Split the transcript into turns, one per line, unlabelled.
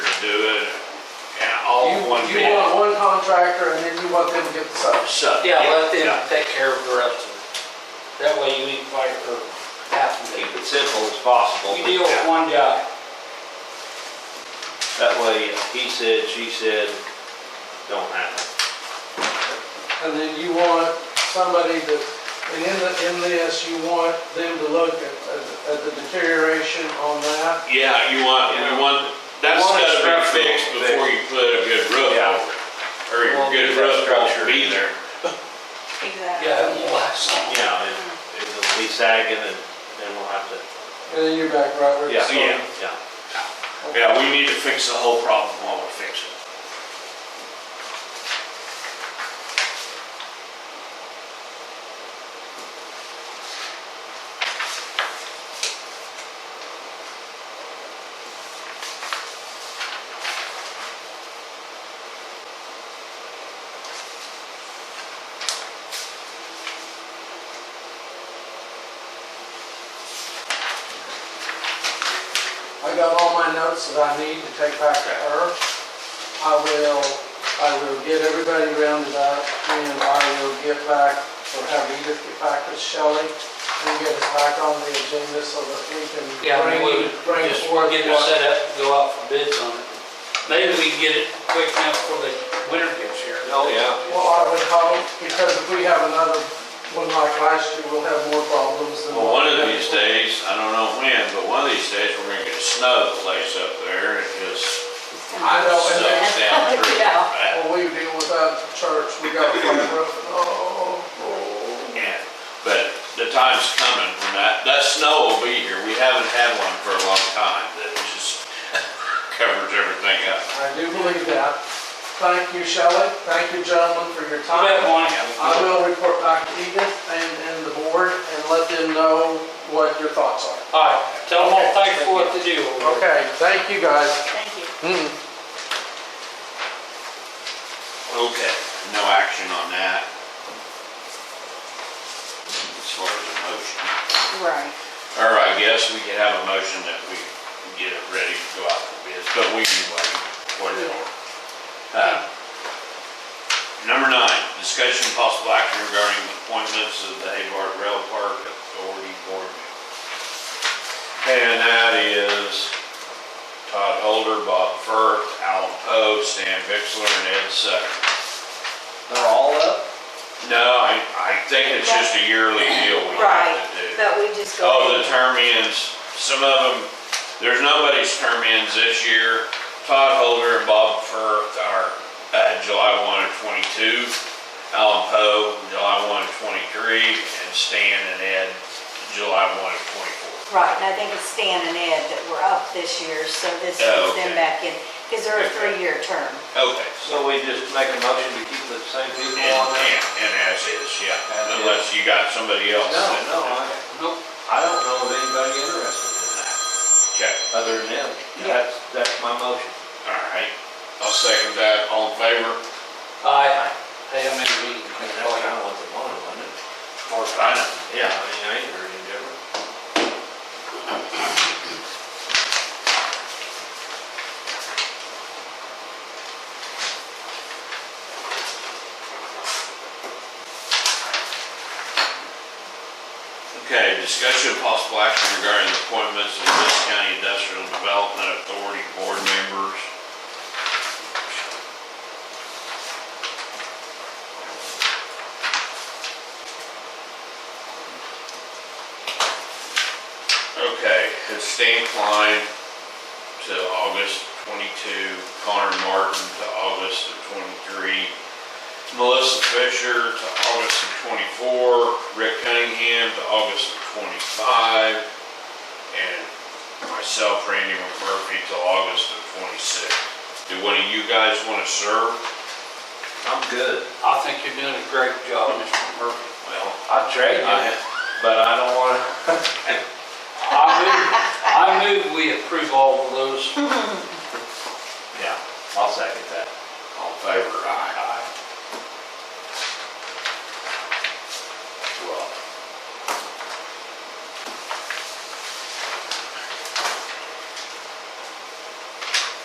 one
You
bid.
want one contractor and then you want them to get the subs.
So,
Yeah, let them
yeah.
take care of the rest of it. That way you eat fight for half of
Keep
it.
it simple as possible.
You deal with one guy.
That way, he said, she said, don't happen.
And then you want somebody that, and in the, in this, you want them to look at, at- at the deterioration on that.
Yeah, you want,
Yeah.
we want, that's
want a
gotta be
structural
fixed
fix.
before you put a good roof
Yeah.
over it. Or
We
your
won't
good
get that
roof
structure.
won't be there.
Exactly.
Yeah, it won't last long.
You know, it- it'll be sagging and then we'll have to,
And then you're back right where you
yeah,
started.
yeah, yeah.
Yeah, we need to fix the whole problem while we're fixing it.
I got all my notes that I need to take back to her. I will, I will get everybody rounded up and I will get back, or have Edith get back with Shelley and get us back on the agenda so that we can
Yeah, I
bring,
mean, we
bring
just
forth
get it
what-
set up, and go out for bids on it. Maybe we can get it quick enough before the winter gets here.
Oh, yeah.
Well, I would hope, because if we have another one like last year, we'll have more problems than.
Well, one of these days, I don't know when, but one of these days, we're gonna get a snow place up there and just
I know, and then,
sucks down through.
Yeah.
that.
well, we deal with that at church, we got a flat roof, and oh, oh.
Yeah, but the time's coming when that, that snow will be here. We haven't had one for a long time that just covers everything up.
I do believe that. Thank you, Shelley, thank you, gentlemen, for your
I bet
time.
one,
I will report back to Edith and, and the board and let them know what your thoughts are.
all right, tell them all thanks for what they do.
Okay, thank you, guys.
Thank you.
Hmm.
Okay. No action on that. As far as a motion.
Right.
Or I guess we could have a motion that we get it ready to go out for bids, but we can wait, whatever. Uh, Number nine, discussion of possible action regarding appointments of the Hayward Rail Park Authority Board. member. And that is Todd Holder, Bob Firth, Alan Poe, Stan Bixler, and Ed Sutter.
They're all up?
No, I, I think it's just a yearly deal we have to do.
Right, that we just go.
Oh, the term ends, some of them, there's nobody's term ends this year. Todd Holder and Bob Firth are, uh, July one of twenty-two. Alan Poe, July one of twenty-three, and Stan and Ed, July one of twenty-four.
Right, and I think it's Stan and Ed that were up this year, so this
Oh,
puts them
okay.
back in, because they're a three-year term.
Okay.
So we just make a motion to keep the same
And,
people on there?
and, and as is,
As
yeah,
is.
unless you got somebody else.
No,
that-
no, I,
Nope.
I don't know of anybody interested in that,
Okay,
other than them.
Yeah.
That's, that's my motion.
all right. I'll second that, all in favor?
Aye. Hey, I'm in a meeting.
That's kind of what they wanted, wasn't it?
Of course, I know.
Yeah, I mean, I ain't heard any different.
Okay, discussion of possible action regarding the appointments of this county industrial development authority board members. Okay, it's Stan Klein to August twenty-two, Connor Martin to August of twenty-three, Melissa Fisher to August of twenty-four, Rick Cunningham to August of twenty-five, and myself, Randy McMurphy, to August of twenty-six. Do one of you guys wanna serve?
I'm good.
I think you're doing a great job, Mr. Murphy.
Well,
I'd trade
I
you, but I don't want to.
I move, I move we approve all of those.
Yeah, I'll second that.